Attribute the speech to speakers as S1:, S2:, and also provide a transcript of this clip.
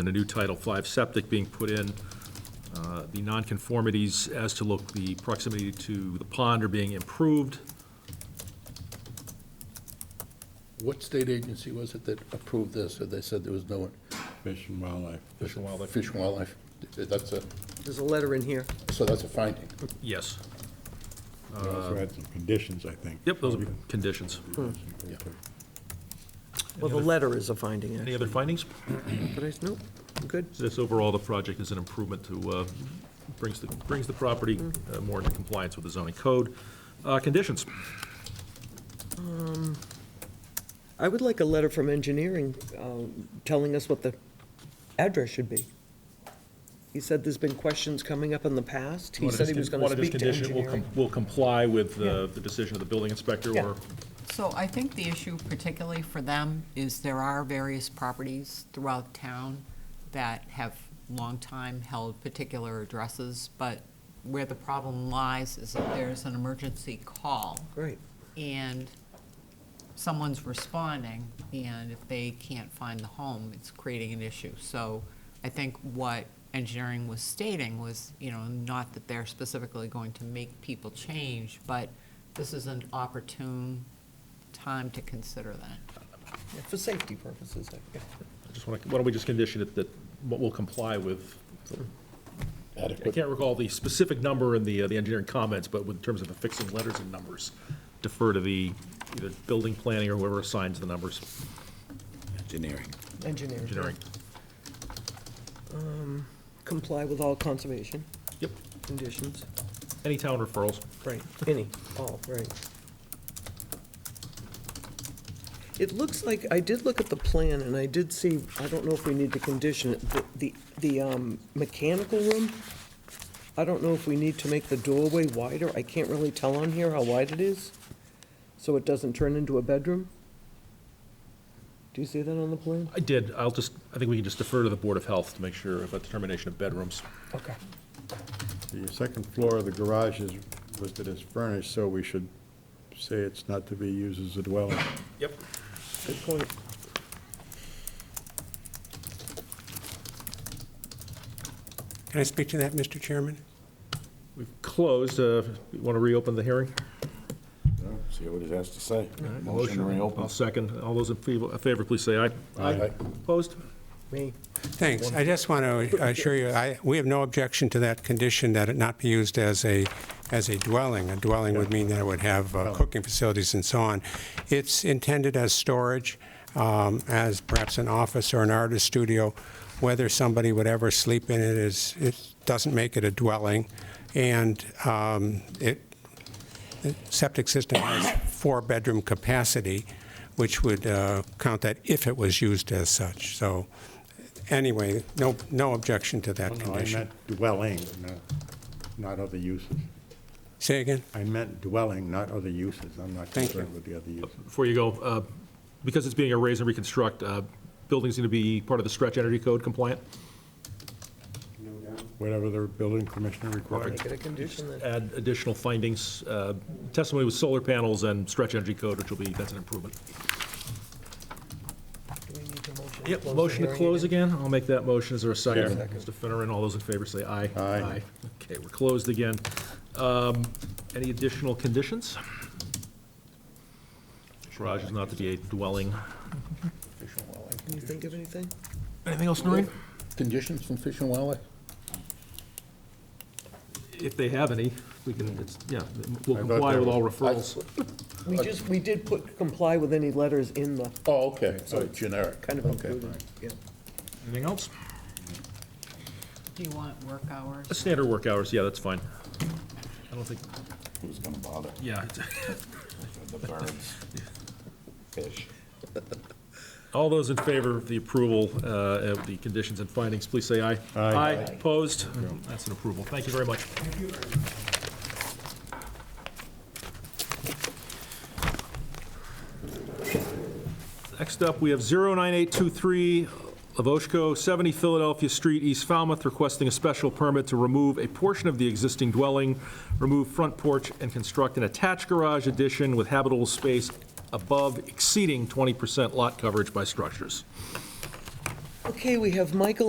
S1: and a new Title V septic being put in. Uh, The nonconformities as to look, the proximity to the pond are being improved.
S2: What state agency was it that approved this, or they said there was no?
S3: Fish and Wildlife.
S2: Fish and Wildlife. Fish and Wildlife, that's a,
S4: There's a letter in here.
S2: so that's a finding.
S1: Yes.
S3: We also had some conditions, I think.
S1: Yep, those are conditions.
S4: Well, the letter is a finding,
S1: Any
S4: actually.
S1: other findings?
S4: But I, nope, I'm good.
S1: So This overall, the project is an improvement to, uh, brings the, brings the property uh, more into compliance with the zoning code. Uh, Conditions,
S4: I would like a letter from engineering um, telling us what the address should be. He said there's been questions coming up in the past. He
S1: One of
S4: said he
S1: his-
S4: was going
S1: one
S4: to
S1: of his
S4: speak to
S1: condition will
S4: engineering.
S1: com- Will comply with uh, the decision of the building inspector
S4: Yeah.
S1: or
S5: So I think the issue particularly for them is there are various properties throughout town that have long time held particular addresses, but where the problem lies is that there's an emergency call
S4: Great,
S5: and someone's responding, and if they can't find the home, it's creating an issue. So I think what engineering was stating was, you know, not that they're specifically going to make people change, but this is an opportune time to consider that.
S4: Yeah, for safety purposes. I guess.
S1: I just want to, why don't we just condition it that, what will comply with, I
S2: Adequate.
S1: can't recall the specific number in the, uh, the engineering comments, but in terms of affixing letters and numbers, defer to the, either building planning or whoever assigns the numbers,
S3: Engineering.
S4: Engineering.
S1: engineering.
S4: Comply with all conservation
S1: Yep,
S4: conditions.
S1: any town referrals.
S4: Right, any, all, right. It looks like, I did look at the plan, and I did see, I don't know if we need to condition it, the- the, the um, mechanical room, I don't know if we need to make the doorway wider, I can't really tell on here how wide it is, so it doesn't turn into a bedroom. Do you see that on the plan?
S1: I did, I'll just, I think we can just defer to the Board of Health to make sure about determination of bedrooms.
S4: Okay.
S3: The second floor of the garage is listed as furnished, so we should say it's not to be used as a dwelling.
S1: Yep.
S4: Good point.
S6: Can I speak to that, Mr. Chairman?
S1: We've closed, uh, you want to reopen the hearing?
S7: See what it has to say. Motion to reopen.
S1: I'll second, all those in favor, favor, please say aye.
S2: Aye.
S1: Opposed?
S4: Me,
S6: Thanks. I just want to assure you, I, we have no objection to that condition that it not be used as a, as a dwelling. A dwelling would mean that it would have uh, cooking facilities and so on. It's intended as storage, um, as perhaps an office or an artist studio. Whether somebody would ever sleep in it is, it doesn't make it a dwelling. And um, it septic system has four-bedroom capacity, which would uh, count that if it was used as such. So anyway, no, no objection to that
S3: Oh, No, I
S6: condition.
S3: meant dwelling, no, not other uses.
S6: Say again?
S3: I meant dwelling, not other uses. I'm not
S6: Thank you.
S3: concerned with the other uses.
S1: Before you go, uh, because it's being a raise and reconstruct, uh, building's going to be part of the stretch energy code compliant?
S3: Whatever the building commissioner requires.
S4: make it a condition then.
S1: add additional findings, uh, testimony with solar panels and stretch energy code, which will be, that's an improvement.
S4: Do we need to motion?
S1: Yep, motion to
S4: hearing
S1: close
S4: again?
S1: again, I'll make that motion, is there a second?
S3: Second.
S1: Mr. Finneran, all those in favor say aye.
S3: Aye.
S1: Okay, we're closed again. Um, Any additional conditions? Garage is not to be a dwelling.
S2: Fish and Wildlife.
S4: Can you think of anything?
S1: Anything else, Noreen?
S2: Conditions from Fish and Wildlife?
S1: If they have any, we can, it's, yeah, we'll
S3: I thought
S1: comply
S3: there
S1: with all
S3: was-
S1: referrals.
S4: We just, we did put comply with any letters in the,
S2: Oh, okay, so generic.
S4: kind of
S2: Okay.
S4: included, yeah.
S1: Anything else?
S5: Do you want work hours?
S1: Standard work hours, yeah, that's fine. I don't think,
S7: Who's gonna bother?
S1: yeah, it's-
S7: The birds, fish.
S1: All those in favor of the approval uh, of the conditions and findings, please say aye.
S3: Aye.
S1: opposed? That's an approval. Thank you very much. Next up, we have 09823 Lavoshko, 70 Philadelphia Street, East Falmouth, requesting a special permit to remove a portion of the existing dwelling, remove front porch, and construct an attached garage addition with habitable space above exceeding 20% lot coverage by structures.
S4: Okay, we have Michael